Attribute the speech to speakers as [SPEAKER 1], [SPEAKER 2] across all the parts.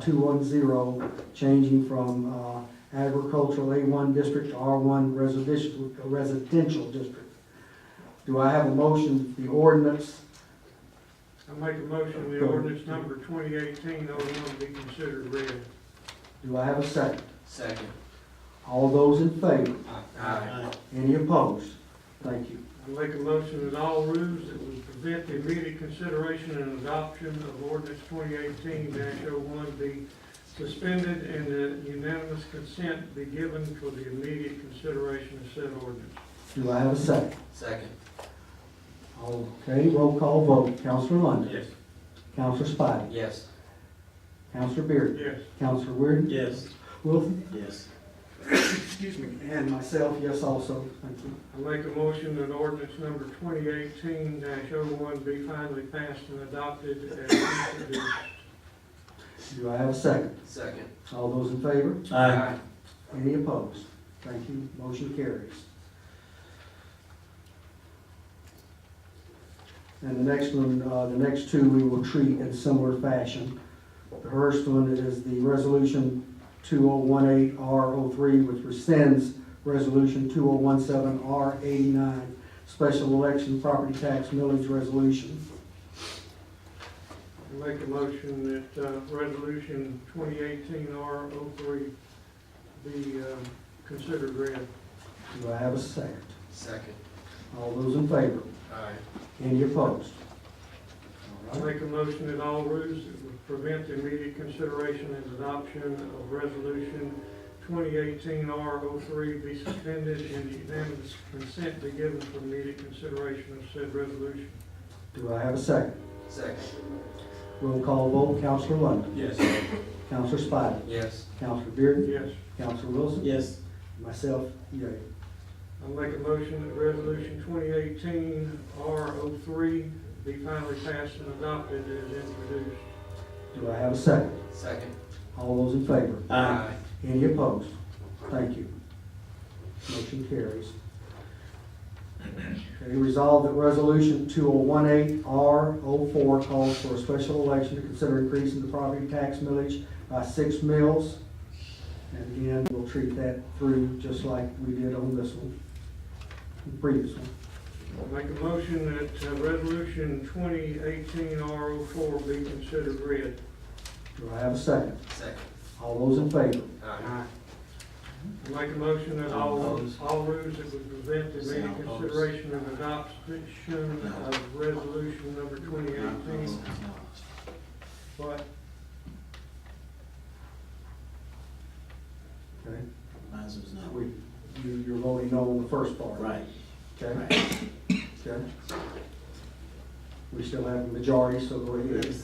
[SPEAKER 1] 35210, changing from uh, agricultural A1 district to R1 residential, residential district. Do I have a motion, the ordinance
[SPEAKER 2] I make a motion, the ordinance number twenty eighteen oh one be considered read.
[SPEAKER 1] Do I have a second?
[SPEAKER 3] Second.
[SPEAKER 1] All those in favor?
[SPEAKER 3] Aye.
[SPEAKER 1] Any opposed? Thank you.
[SPEAKER 2] I make a motion that all rules that would prevent the immediate consideration and adoption of ordinance twenty eighteen oh one be suspended and that unanimous consent be given for the immediate consideration of said ordinance.
[SPEAKER 1] Do I have a second?
[SPEAKER 3] Second.
[SPEAKER 1] Okay, roll call vote. Counselor London?
[SPEAKER 3] Yes.
[SPEAKER 1] Counselor Spidey?
[SPEAKER 3] Yes.
[SPEAKER 1] Counselor Beard?
[SPEAKER 2] Yes.
[SPEAKER 1] Counselor Weird?
[SPEAKER 3] Yes.
[SPEAKER 1] Wilson?
[SPEAKER 3] Yes.
[SPEAKER 1] Excuse me. And myself, yes also. Thank you.
[SPEAKER 2] I make a motion that ordinance number twenty eighteen oh one be finally passed and adopted as introduced.
[SPEAKER 1] Do I have a second?
[SPEAKER 3] Second.
[SPEAKER 1] All those in favor?
[SPEAKER 3] Aye.
[SPEAKER 1] Any opposed? Thank you. Motion carries. And the next one, uh, the next two we will treat in similar fashion. The first one is the resolution two oh one eight R 3 which rescinds resolution two oh one seven R eighty-nine, special election property tax millage resolution.
[SPEAKER 2] I Make a motion that uh, Resolution 2018-R03 be um, considered read.
[SPEAKER 1] Do I have a second?
[SPEAKER 3] Second.
[SPEAKER 1] All those in favor?
[SPEAKER 3] Aye.
[SPEAKER 1] Any opposed?
[SPEAKER 2] I Make a motion that all rules that would prevent the immediate consideration and adoption of Resolution 2018-R03 be suspended and unanimous consent be given for immediate consideration of said resolution.
[SPEAKER 1] Do I have a second?
[SPEAKER 3] Second.
[SPEAKER 1] Roll call vote, Counselor London.
[SPEAKER 3] Yes.
[SPEAKER 1] Counselor Spidey.
[SPEAKER 3] Yes.
[SPEAKER 1] Counselor Beard.
[SPEAKER 2] Yes.
[SPEAKER 1] Counselor Wilson.
[SPEAKER 3] Yes.
[SPEAKER 1] Myself, yea.
[SPEAKER 2] I make a motion that resolution twenty eighteen R 3 be finally passed and adopted as introduced.
[SPEAKER 1] Do I have a second?
[SPEAKER 3] Second.
[SPEAKER 1] All those in favor? Any opposed? Thank you. Motion carries. Okay, resolve that resolution two oh one eight R 4 calls for a special election to consider increasing the property tax millage by six mills. And again, we'll treat that through just like we did on this one, the previous one.
[SPEAKER 2] I make a motion that uh, resolution twenty eighteen R 4 be considered read.
[SPEAKER 1] Do I have a second?
[SPEAKER 3] Second.
[SPEAKER 1] All those in favor?
[SPEAKER 3] Aye.
[SPEAKER 2] I make a motion that all, all rules that would prevent the immediate
[SPEAKER 3] Sound opposed.
[SPEAKER 2] consideration and adoption of resolution number twenty eighteen. But
[SPEAKER 1] Okay.
[SPEAKER 4] Mine's was not.
[SPEAKER 1] We, you, you're voting no on the first part.
[SPEAKER 4] Right.
[SPEAKER 1] Okay, okay. We still have the majority, so go ahead.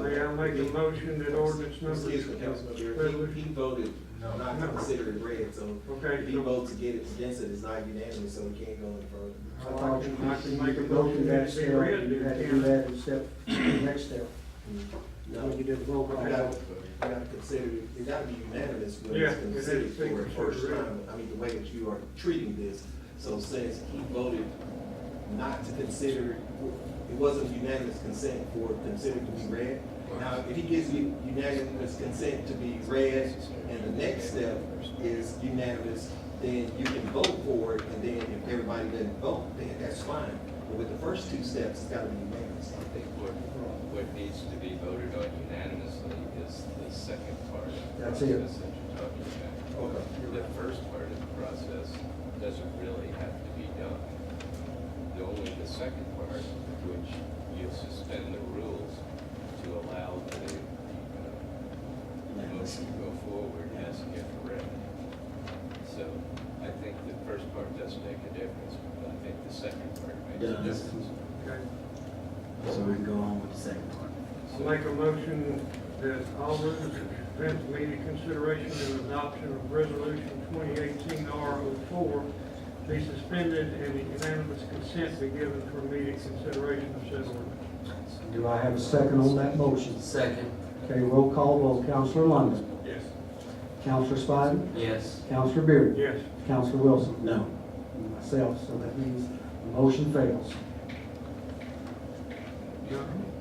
[SPEAKER 2] may I make a motion that ordinance number.
[SPEAKER 5] Excuse me, Councilman Beard, he, he voted not to consider it read, so
[SPEAKER 2] Okay.
[SPEAKER 5] if he
[SPEAKER 2] so-
[SPEAKER 5] votes against it, it's not unanimous, so we can't go any further.
[SPEAKER 1] I thought you
[SPEAKER 2] I can make a
[SPEAKER 1] go through
[SPEAKER 2] motion
[SPEAKER 1] that
[SPEAKER 2] that
[SPEAKER 1] step,
[SPEAKER 2] be read.
[SPEAKER 1] you had to do that in step, the next step. When you did the roll
[SPEAKER 5] We
[SPEAKER 1] call.
[SPEAKER 5] gotta, we gotta consider, it gotta be unanimous when
[SPEAKER 2] Yeah,
[SPEAKER 5] it's
[SPEAKER 2] it
[SPEAKER 5] considered
[SPEAKER 2] has to
[SPEAKER 5] for
[SPEAKER 2] be
[SPEAKER 5] the first
[SPEAKER 2] considered.
[SPEAKER 5] time, I mean, the way that you are treating this. So since he voted not to consider, it wasn't unanimous consent for considered to be read. Now, if he gives you unanimous consent to be read, and the next step is unanimous, then you can vote for it, and then if everybody doesn't vote, then that's fine. But with the first two steps, it's gotta be unanimous.
[SPEAKER 6] I think what, what needs to be voted on unanimously is the second part. of the
[SPEAKER 1] That's it.
[SPEAKER 6] process That you're talking
[SPEAKER 5] Okay.
[SPEAKER 6] about. The first part of the process doesn't really have to be done. The Only the second part, which you suspend the rules to allow the, uh, motion to go forward as if read. So I think the first part does make a difference, but I think the second part makes a
[SPEAKER 4] Does.
[SPEAKER 6] difference.
[SPEAKER 2] Okay.
[SPEAKER 4] So we can go on with the second part.
[SPEAKER 2] I
[SPEAKER 6] So-
[SPEAKER 2] Make a motion that all rules that prevent immediate consideration and adoption of resolution twenty eighteen R 4 be suspended and unanimous consent be given for immediate consideration of said ordinance.
[SPEAKER 1] Do I have a second on that motion?
[SPEAKER 3] Second.
[SPEAKER 1] Okay, roll call vote, Counselor London.
[SPEAKER 2] Yes.
[SPEAKER 1] Counselor Spidey.
[SPEAKER 3] Yes.
[SPEAKER 1] Counselor Beard.
[SPEAKER 2] Yes.
[SPEAKER 1] Counselor Wilson.
[SPEAKER 4] No.
[SPEAKER 1] And Myself, so that means the motion fails.
[SPEAKER 2] Now,